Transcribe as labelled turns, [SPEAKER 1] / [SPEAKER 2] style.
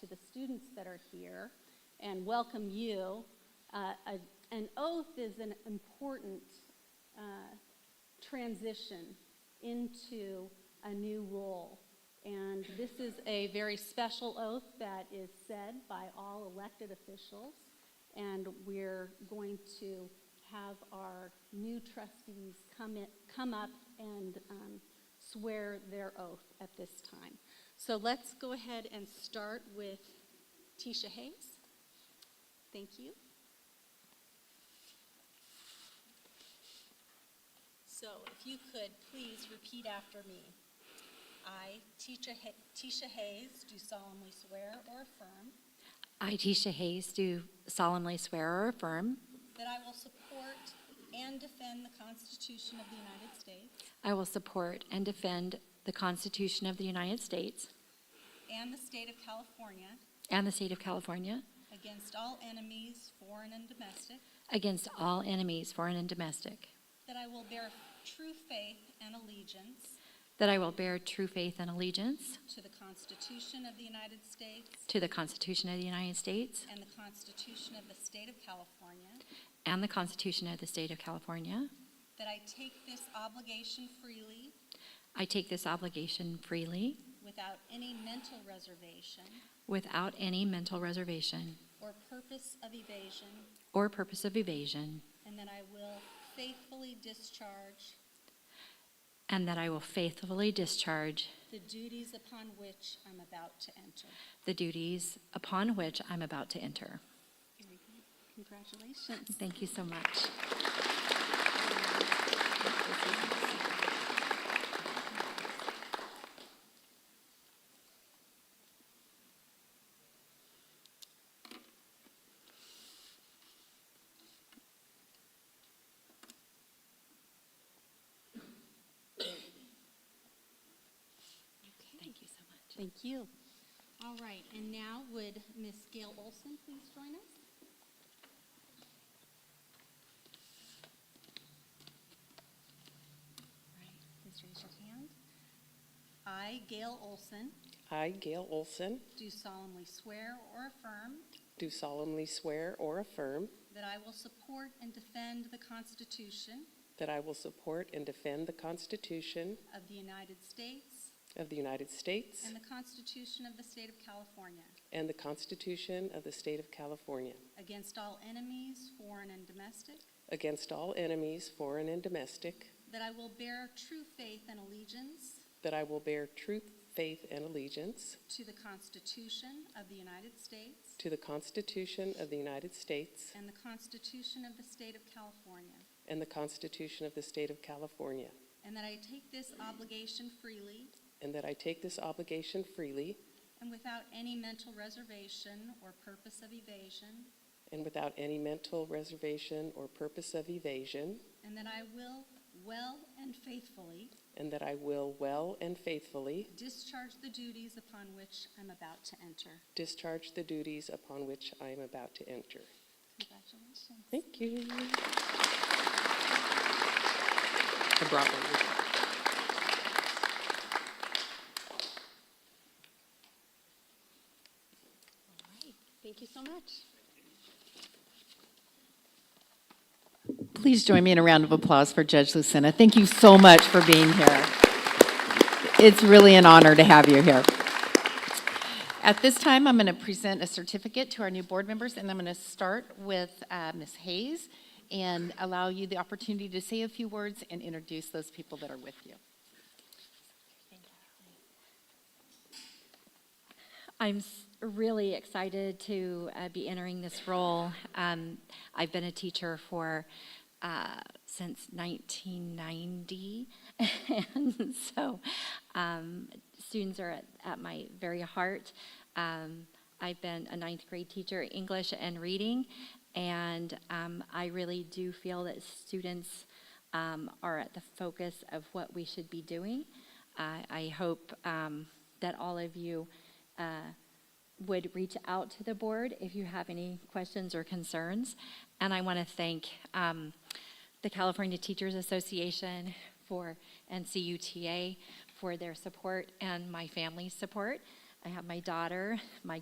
[SPEAKER 1] to the students that are here and welcome you. Uh, a- An oath is an important uh, transition into a new role. And this is a very special oath that is said by all elected officials. And we're going to have our new trustees come, in, come up and um, swear their oath at this time. So let's go ahead and start with Tisha Hayes. Thank you. So if you could, please repeat after me. I, Tisha Ha- Tisha Hayes, do solemnly swear or affirm
[SPEAKER 2] I, Tisha Hayes, do solemnly swear or affirm
[SPEAKER 1] that I will support and defend the Constitution of the United States
[SPEAKER 2] I will support and defend the Constitution of the United States
[SPEAKER 1] and the state of California
[SPEAKER 2] and the state of California
[SPEAKER 1] against all enemies, foreign and domestic,
[SPEAKER 2] against all enemies, foreign and domestic,
[SPEAKER 1] that I will bear true faith and allegiance
[SPEAKER 2] that I will bear true faith and allegiance
[SPEAKER 1] to the Constitution of the United States
[SPEAKER 2] to the Constitution of the United States
[SPEAKER 1] and the Constitution of the state of California,
[SPEAKER 2] and the Constitution of the state of California.
[SPEAKER 1] that I take this obligation freely
[SPEAKER 2] I take this obligation freely
[SPEAKER 1] without any mental reservation
[SPEAKER 2] without any mental reservation
[SPEAKER 1] or purpose of evasion,
[SPEAKER 2] or purpose of evasion,
[SPEAKER 1] and that I will faithfully discharge
[SPEAKER 2] and that I will faithfully discharge
[SPEAKER 1] the duties upon which I'm about to enter.
[SPEAKER 2] the duties upon which I'm about to enter.
[SPEAKER 1] Congratulations.
[SPEAKER 2] Thank you so much. Thank you so much.
[SPEAKER 1] Thank you. All right, and now would Miss Gail Olson please join us? All right, Please raise your hand. I, Gail Olson,
[SPEAKER 3] I, Gail Olson,
[SPEAKER 1] do solemnly swear or affirm
[SPEAKER 3] do solemnly swear or affirm
[SPEAKER 1] that I will support and defend the Constitution
[SPEAKER 3] that I will support and defend the Constitution
[SPEAKER 1] of the United States
[SPEAKER 3] of the United States
[SPEAKER 1] and the Constitution of the State of California
[SPEAKER 3] and the Constitution of the State of California
[SPEAKER 1] against all enemies, foreign and domestic,
[SPEAKER 3] against all enemies, foreign and domestic,
[SPEAKER 1] that I will bear true faith and allegiance
[SPEAKER 3] that I will bear true faith and allegiance
[SPEAKER 1] to the Constitution of the United States
[SPEAKER 3] to the Constitution of the United States
[SPEAKER 1] and the Constitution of the State of California,
[SPEAKER 3] and the Constitution of the State of California,
[SPEAKER 1] and that I take this obligation freely
[SPEAKER 3] and that I take this obligation freely
[SPEAKER 1] and without any mental reservation or purpose of evasion,
[SPEAKER 3] and without any mental reservation or purpose of evasion,
[SPEAKER 1] and that I will well and faithfully
[SPEAKER 3] and that I will well and faithfully
[SPEAKER 1] discharge the duties upon which I'm about to enter.
[SPEAKER 3] Discharge the duties upon which I am about to enter.
[SPEAKER 1] Congratulations.
[SPEAKER 3] Thank you. I brought one with me.
[SPEAKER 1] All right, thank you so much.
[SPEAKER 4] Please join me in a round of applause for Judge Lucena. Thank you so much for being here. It's really an honor to have you here. At this time, I'm going to present a certificate to our new board members, and I'm going to start with uh, Ms. Hayes and allow you the opportunity to say a few words and introduce those people that are with you.
[SPEAKER 2] I'm s- really excited to uh, be entering this role. Um, I've been a teacher for uh, since 1990, and so um, students are at, at my very heart. Um, I've been a ninth grade teacher, English and reading, and um, I really do feel that students um, are at the focus of what we should be doing. I I hope um, that all of you uh, would reach out to the board if you have any questions or concerns. And I want to thank um, the California Teachers Association for, and CUTA for their support and my family's support. I have my daughter, my